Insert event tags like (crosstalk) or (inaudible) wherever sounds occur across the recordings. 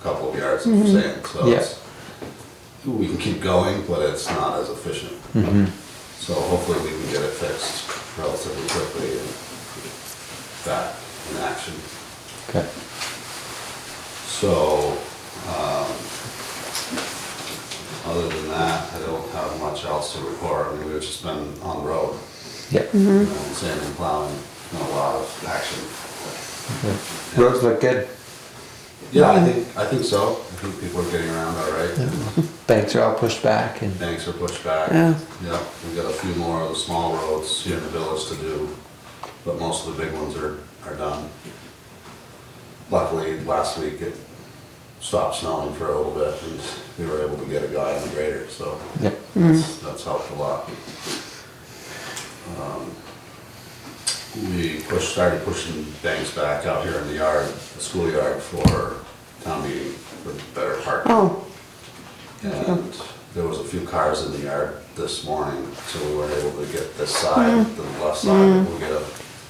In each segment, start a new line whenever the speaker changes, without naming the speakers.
couple of yards of sand, so
Yeah.
it's, we can keep going, but it's not as efficient.
Mm-hmm.
So hopefully we can get it fixed relatively quickly and back in action.
Okay.
So, um, other than that, I don't have much else to report, I mean, we've just been on the road,
Yep.
you know, sand and plowing, and a lot of action.
Okay. Mm-hmm. Roads look good.
Yeah, I think, I think so. I think people are getting around all right.
Banks are all pushed back and
Banks are pushed back.
Yeah.
Yep, we got a few more of the small roads here in the village to do, but most of the big ones are, are done. Luckily, last week it stopped snowing for a little bit and we were able to get a guy on the grader, so
yep.
Mm-hmm.
that's, that's helped a lot. Um, We pushed, started pushing banks back out here in the yard, the schoolyard for town meeting for better parking.
Oh,
And there was a few cars in the yard this morning, so we weren't able to get this side, the left side. We'll get a,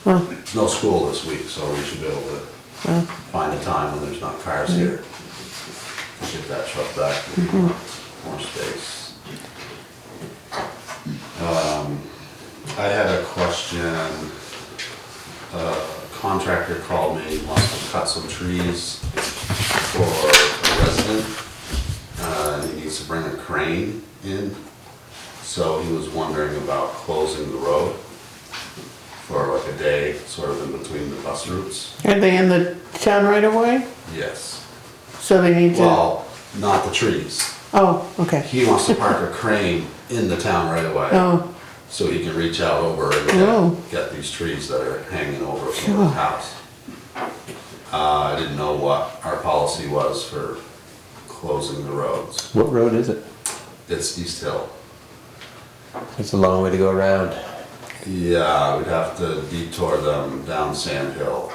Mm-hmm. well,
no school this week, so we should be able to
well, Mm-hmm.
find a time when there's not cars here. to Get that truck back, we need
Mm-hmm.
more space. Um, I had a question. A Contractor called me, wants to cut some trees for a resident. Uh, and he needs to bring a crane in, so he was wondering about closing the road for like a day, sort of in between the bus routes.
are they in the town right away?
Yes.
So they need to,
Well, not the trees.
oh, okay,
He wants to park a crane in the town right away,
oh,
so he can reach out over
Oh.
and get- get these trees that are hanging over from the
Sure.
house. Uh, I didn't know what our policy was for closing the roads.
What road is it?
It's East Hill.
It's a long way to go around.
Yeah, we'd have to detour them down Sand Hill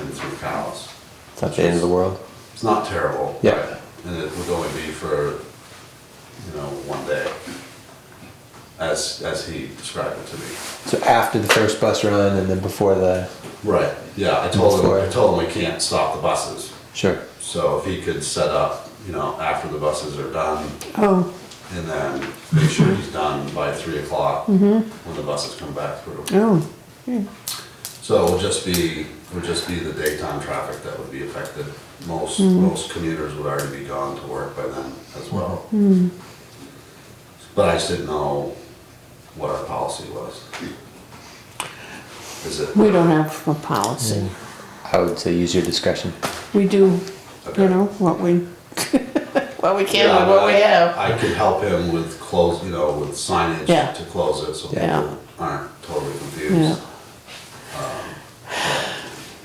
and through Cowles.
It's not the end of the world.
It's not terrible.
Yeah.
right? And it would only be for, you know, one day, as, as he described it to me.
So after the first bus run and then before the
Right. Yeah, I told him, I
Before.
told him we can't stop the buses.
sure.
So if he could set up, you know, after the buses are done,
oh,
and then make sure he's done by three o'clock
Mm-hmm.
when the buses come back through.
oh,
So it'll just be, it'll just be the daytime traffic that would be affected. Most,
Mm-hmm.
most commuters would already be gone to work by then as well. But I just didn't know what our policy was. Is it?
we don't have a policy.
Mm.
I would say use your discretion.
We do,
Okay.
you know, what we, (laughs) what we can
Yeah,
with what we
but I-
have.
I could help him with close, you know, with signage
Yeah.
to close it, so
Yeah.
people aren't totally
Yeah.
confused.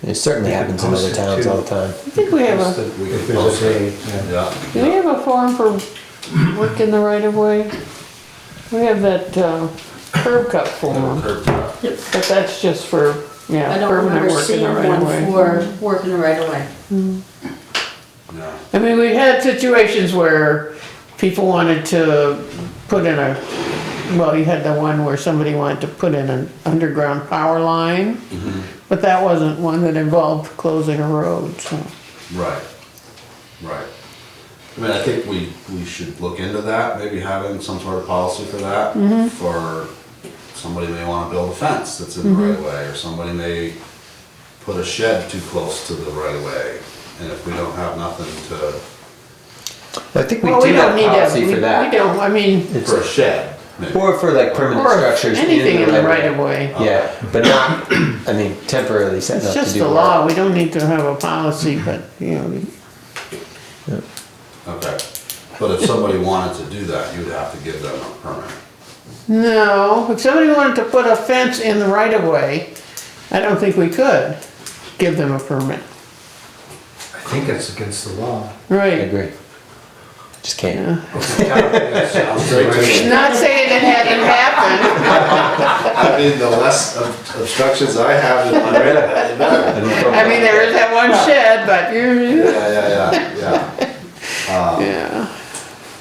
It certainly
You can
happens in
post
other
it
towns
too.
all the time.
I think we have a,
We
If
could
there's
close
a
it.
day, yeah.
Yeah,
do we have a form for work in the right of way? We have that uh, curb cut
Little
form,
curb cut.
Yep.
but that's just for,
I
yeah,
don't
permanent
remember
work in
seeing
the right of
one
way.
for working the right away.
yeah,
I mean, we had situations where people wanted to put in a, well, you had the one where somebody wanted to put in an underground power line,
Mm-hmm.
but that wasn't one that involved closing a road, so.
right, right. I mean, I think we, we should look into that, maybe having some sort of policy for that.
Mm-hmm.
For, somebody may wanna build a fence that's in the right of
Mm-hmm.
way, or somebody may put a shed too close to the right of way. And if we don't have nothing to,
I think we
Well,
do
don't
have
need
a
to-
policy
we-
for
We
that.
don't, I mean,
It's-
for a shed, maybe.
Or for like permanent
or
structures.
anything in the right of
way.
way.
Yeah, but not, I mean, temporarily set up
It's
to do
just the
work. Mm-hmm.
law, we don't need to have a policy, but, you know,
Okay, but if somebody wanted to do that, you'd have to give them a permit.
no, if somebody wanted to put a fence in the right of way, I don't think we could give them a permit.
I think it's against the law.
I
Right,
agree. Just can't.
Sounds great to me.
not saying it hadn't happened.
I mean, the less ob- obstructions I have in my way, the better.
I mean, there is that one shed, but you
Yeah, yeah, yeah, yeah.
(laughs) yeah.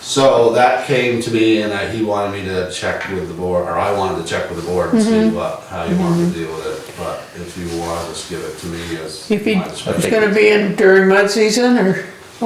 So that came to me and I- he wanted me to check with the board, or I wanted to check with the board and
Mm-hmm.
see what, how you wanted to deal with it. But if you want, just give it to me as
If he,
my
it's
discretion.
gonna be in during mud season or,